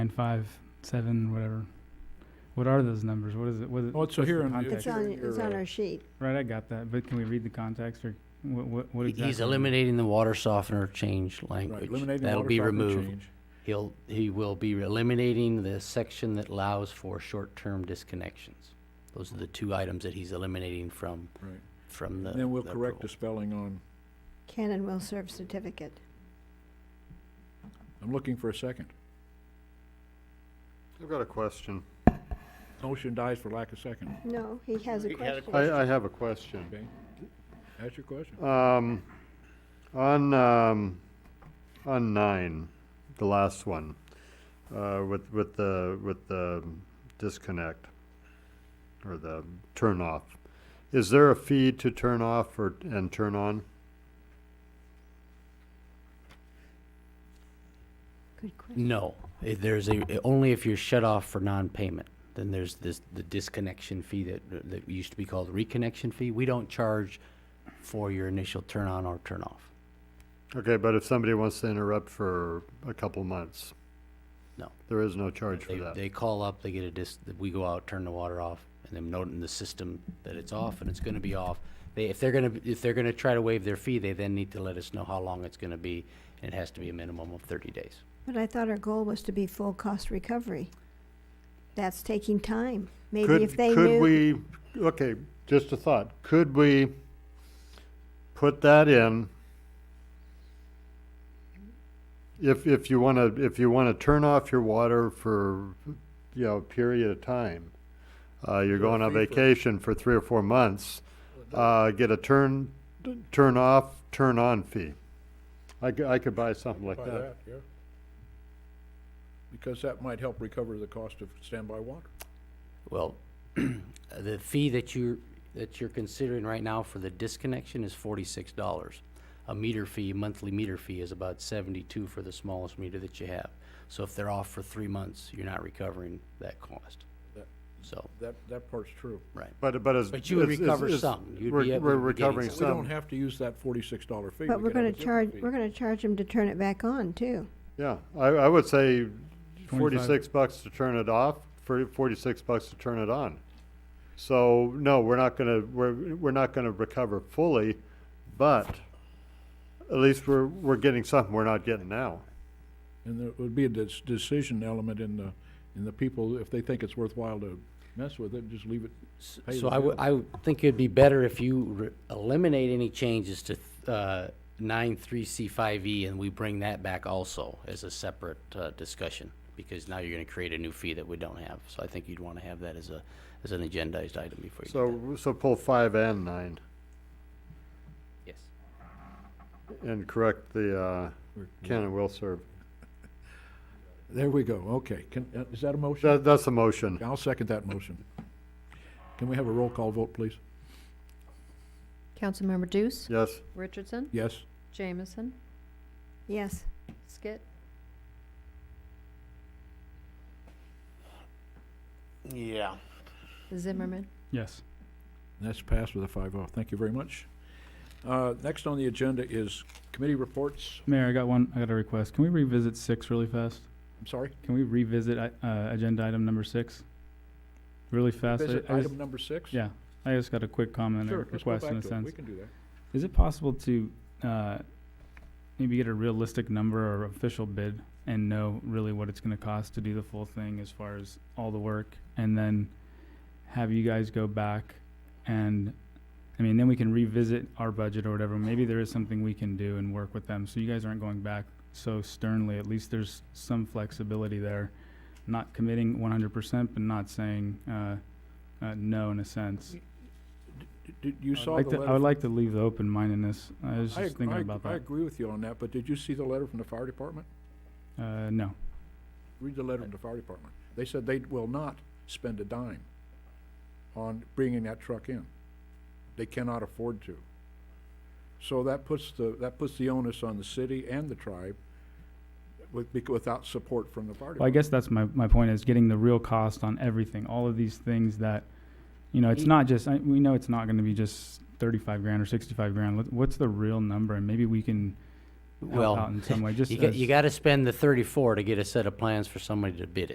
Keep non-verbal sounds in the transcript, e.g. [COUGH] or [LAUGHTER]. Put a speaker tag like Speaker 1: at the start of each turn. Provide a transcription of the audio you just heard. Speaker 1: nine, five, seven, whatever. What are those numbers? What is it? What is
Speaker 2: Oh, it's
Speaker 1: what's the
Speaker 2: here on the-
Speaker 1: context?
Speaker 3: It's
Speaker 2: Yeah,
Speaker 3: on,
Speaker 2: you're
Speaker 3: it's on
Speaker 2: right.
Speaker 4: uh,
Speaker 3: our sheet.
Speaker 1: Right, I got that, but can we read the context or what, what, what
Speaker 5: He-
Speaker 1: exactly?
Speaker 5: He's eliminating the water softener change
Speaker 2: Right,
Speaker 5: language.
Speaker 2: eliminating
Speaker 5: That'll
Speaker 2: water
Speaker 5: be
Speaker 2: softener
Speaker 5: removed.
Speaker 2: change.
Speaker 5: He'll, he will be eliminating the section that allows for short-term disconnections. Those are the two items that he's eliminating from,
Speaker 2: Right.
Speaker 5: from the.
Speaker 2: Then we'll
Speaker 5: the
Speaker 2: correct the
Speaker 5: rule.
Speaker 2: spelling on,
Speaker 3: Can and will serve certificate.
Speaker 2: I'm looking for a second.
Speaker 4: I've got a question.
Speaker 2: Motion dies for lack of second,
Speaker 3: No, he has a
Speaker 5: He had a
Speaker 3: question.
Speaker 4: I, I have a question.
Speaker 2: okay? Ask your question.
Speaker 4: Um, on, um, on nine, the last one, uh, with, with the, with the disconnect or the turn off, is there a fee to turn off or, and turn on? uh,
Speaker 3: Good question.
Speaker 5: No, Eh, there's a, only if you're shut off for non-payment, then there's this, the disconnection fee that, that used to be called reconnection fee. We don't charge for your initial turn on or turn off.
Speaker 4: Okay, but if somebody wants to interrupt for a couple months?
Speaker 5: No.
Speaker 4: There is no charge for
Speaker 5: They,
Speaker 4: that?
Speaker 5: they call up, they get a dis, we go out, turn the water off, and then note in the system that it's off and it's gonna be off. They, if they're gonna, if they're gonna try to waive their fee, they then need to let us know how long it's gonna be, and it has to be a minimum of thirty days.
Speaker 3: But I thought our goal was to be full cost recovery. That's taking time. Maybe
Speaker 4: Could-
Speaker 3: if they
Speaker 4: Could
Speaker 3: knew,
Speaker 4: we, okay, just a thought, could we put that in? If, if you wanna, if you wanna turn off your water for, you know, a period of time, uh, you're
Speaker 2: Sure,
Speaker 4: going on
Speaker 2: fee for-
Speaker 4: vacation for three or four months, uh, get a turn, turn off, turn on fee. I could, I could buy something like that.
Speaker 2: Because that might help recover the cost of standby water.
Speaker 5: Well, [CLEARS THROAT] the fee that you're, that you're considering right now for the disconnection is forty-six dollars. A meter fee, monthly meter fee is about seventy-two for the smallest meter that you have. So if they're off for three months, you're not recovering that cost.
Speaker 2: That-
Speaker 5: So,
Speaker 2: That, that part's true.
Speaker 5: right.
Speaker 4: But, but it's.
Speaker 5: But you would
Speaker 4: it's-
Speaker 5: recover
Speaker 4: it's-
Speaker 5: some. You'd
Speaker 4: we're-
Speaker 5: be able to
Speaker 4: We're
Speaker 5: be getting
Speaker 4: recovering
Speaker 2: We
Speaker 5: some.
Speaker 2: don't
Speaker 4: some,
Speaker 2: have to use that forty-six dollar fee.
Speaker 3: but
Speaker 2: We
Speaker 3: we're
Speaker 2: can have a
Speaker 3: gonna
Speaker 2: different
Speaker 3: charge,
Speaker 2: fee.
Speaker 3: we're gonna charge them to turn it back on too.
Speaker 4: yeah, I, I would say
Speaker 1: 25.
Speaker 4: forty-six bucks to turn it off, for forty-six bucks to turn it on. So, no, we're not gonna, we're, we're not gonna recover fully, but at least we're, we're getting something we're not getting now.
Speaker 2: And there would be a dis- decision element in the, in the people, if they think it's worthwhile to mess with it, just leave it.
Speaker 5: S-
Speaker 2: pay
Speaker 5: So
Speaker 2: the
Speaker 5: I would,
Speaker 2: bill.
Speaker 5: I would think it'd be better if you re- eliminate any changes to, uh, nine, three, C, five, E, and we bring that back also as a separate, uh, discussion, because now you're gonna create a new fee that we don't have. So I think you'd wanna have that as a, as an agendized item before you.
Speaker 4: So, so pull five and nine
Speaker 5: Yes.
Speaker 4: and correct the, uh, can and will serve.
Speaker 2: There we go, okay. Can, uh, is that a motion?
Speaker 4: That, that's a motion.
Speaker 2: I'll second that motion. Can we have a roll call vote, please?
Speaker 6: Councilmember Deuce,
Speaker 4: Yes,
Speaker 6: Richardson,
Speaker 2: Yes?
Speaker 6: Jameson,
Speaker 3: Yes,
Speaker 6: Skit,
Speaker 5: Yeah.
Speaker 6: Zimmerman.
Speaker 1: Yes.
Speaker 2: And That's passed with a 5-0. Thank you very much. Uh, Next on the agenda is committee reports.
Speaker 1: Mayor, I got one, I got a request. Can we revisit six really fast?
Speaker 2: I'm sorry.
Speaker 1: Can we revisit, i- uh, agenda item number six? Really fast? I-
Speaker 2: Visit
Speaker 1: I just-
Speaker 2: item number six?
Speaker 1: Yeah, I just got a quick comment
Speaker 2: Sure,
Speaker 1: or
Speaker 2: let's go
Speaker 1: request in
Speaker 2: back
Speaker 1: a
Speaker 2: to it. We
Speaker 1: sense.
Speaker 2: can do that.
Speaker 1: Is it possible to, uh, maybe get a realistic number or official bid and know really what it's gonna cost to do the full thing as far as all the work? And then have you guys go back and, I mean, then we can revisit our budget or whatever. Maybe there is something we can do and work with them, so you guys aren't going back so sternly. At least there's some flexibility there. Not committing one hundred percent, but not saying, uh, uh, no in a sense.
Speaker 2: D- Did you
Speaker 1: I'd
Speaker 2: saw
Speaker 1: like
Speaker 2: the
Speaker 1: to-
Speaker 2: letter?
Speaker 1: I would like to leave the open-mindedness. I was
Speaker 2: I
Speaker 1: just
Speaker 2: ag-
Speaker 1: thinking
Speaker 2: I ag-
Speaker 1: about
Speaker 2: I
Speaker 1: that.
Speaker 2: agree with you on that, but did you see the letter from the fire department?
Speaker 1: Uh, no.
Speaker 2: Read the letter from the fire department. They said they will not spend a dime on bringing that truck in. They cannot afford to. So that puts the, that puts the onus on the city and the tribe with, bec- without support from the fire
Speaker 1: Well, I
Speaker 2: department.
Speaker 1: guess that's my, my point is getting the real cost on everything. All of these things that, you know, it's
Speaker 5: Ye-
Speaker 1: not just, I, we know it's not going to be just 35 grand or 65 grand. What- What's the real number? And maybe we can help out
Speaker 5: Well,
Speaker 1: in some way, just
Speaker 5: you got, you
Speaker 1: as-
Speaker 5: gotta spend the thirty-four to get a set of plans for somebody to bid it.